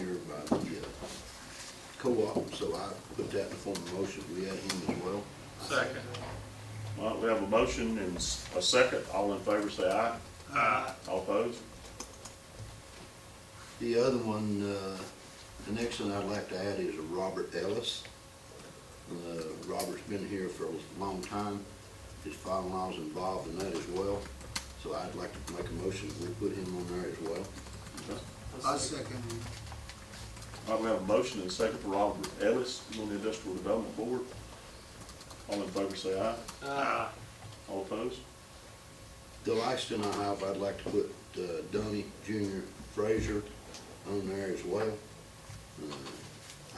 uh, co-op, so I put that in the form of motion, we add him as well. Second. All right, we have a motion and s- a second. All in favor, say aye. Uh, Aye. All opposed? The other one, uh, the next one I'd like to add is Robert Ellis. Uh, Robert's been here for a long time, his father-in-law's involved in that as well, so I'd like to make a motion, we put him on there as well. I second All right, we have a motion and a second for Robert Ellis on the Industrial Development Board. All in favor, say aye. uh, Aye. All opposed? The last one I have, I'd like to put uh, Donnie Junior Frazier on there as well. Uh,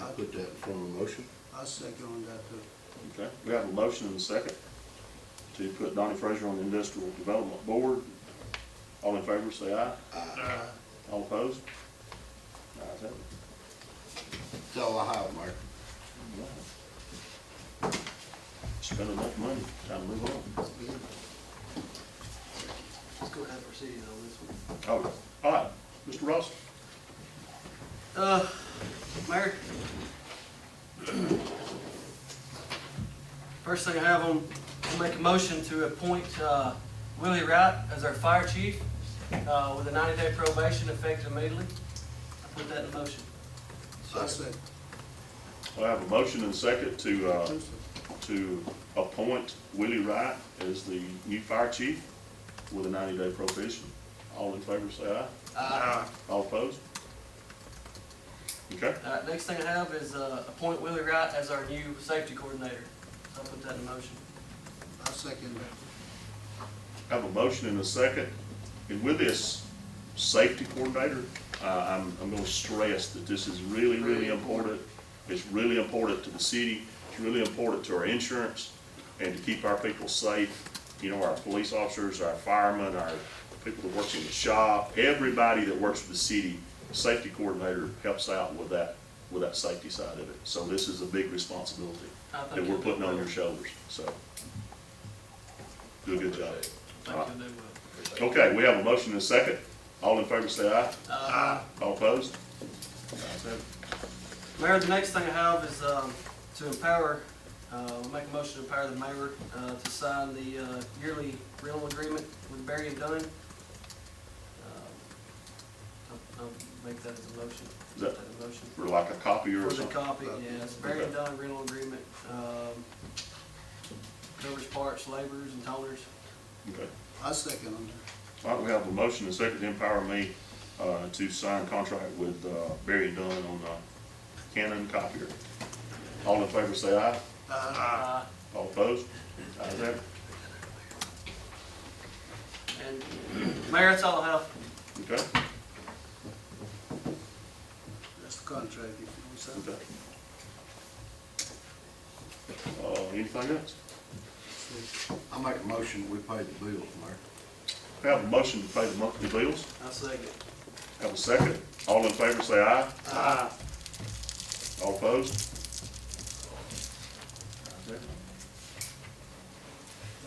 I put that in form of motion. I second on that uh, too. Okay, we have a motion and a second to put Donnie Fraser on the Industrial Development Board. All in favor, say aye. Aye. All opposed? Ayes have it. That's all I have, Mark. Wow. Spend enough money, time to move on. Let's go ahead and proceed on this one. Oh, All right, Mr. Ross, Uh, Mayor? First thing I have on, I'll make a motion to appoint uh, Willie Wright as our fire chief uh, with a 90-day probation effective immediately. I put that in motion. I second. I have a motion and second to, uh, to appoint Willie Wright as the new fire chief with a ninety-day probation. All in favor, say aye. Uh, All opposed? Okay, all right, uh, Next thing I have is uh, appoint Willie Wright as our new safety coordinator. So I put that in motion. I second that. I have a motion and a second. And with this safety coordinator, uh, I'm, I'm gonna stress that this is really, really important. It's really important to the city, it's really important to our insurance, and to keep our people safe. You know, our police officers, our firemen, our people that work in the shop, everybody that works for the city, safety coordinator helps out with that, with that safety side of it. So this is a big responsibility I think that we're you'll do putting on well. your shoulders, so. Do a good job. Thank you, will do well. Okay, we have a motion and a second. All in favor say aye. Aye. All opposed? Ayes have it. Mayor, the next thing I have is um, to empower, uh, we'll make a motion to empower the mayor uh, to sign the uh, yearly rental agreement with Barry and Dunn. Um, I'll I'll make that as a motion. Is that- a motion? For like a copier or For the something. copy, yes, Barry and Dunn rental agreement, um, covers parts, laborers and toners. Okay. I second on that. All right, we have a motion and a second to empower me uh, to sign contract with uh, Barry Dunn on uh, Canon copier. All in favor say aye. Uh, All opposed? Ayes have it. And Mayor, that's all I have. Okay, That's the contract, if you want something. okay. Uh, Anything else? I make a motion, we pay the bills, Mark. We have a motion to pay the monthly bills. I'll second. Have a second. All in favor say aye. Aye. All opposed?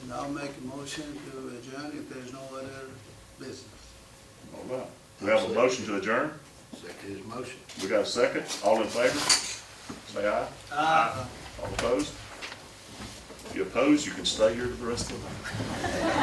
And I'll make a motion to adjourn if there's no other business. All right. We have a motion to adjourn. Second his motion. We got a second. All in favor? Say aye. All opposed? If you oppose, you can stay here for the rest of the night.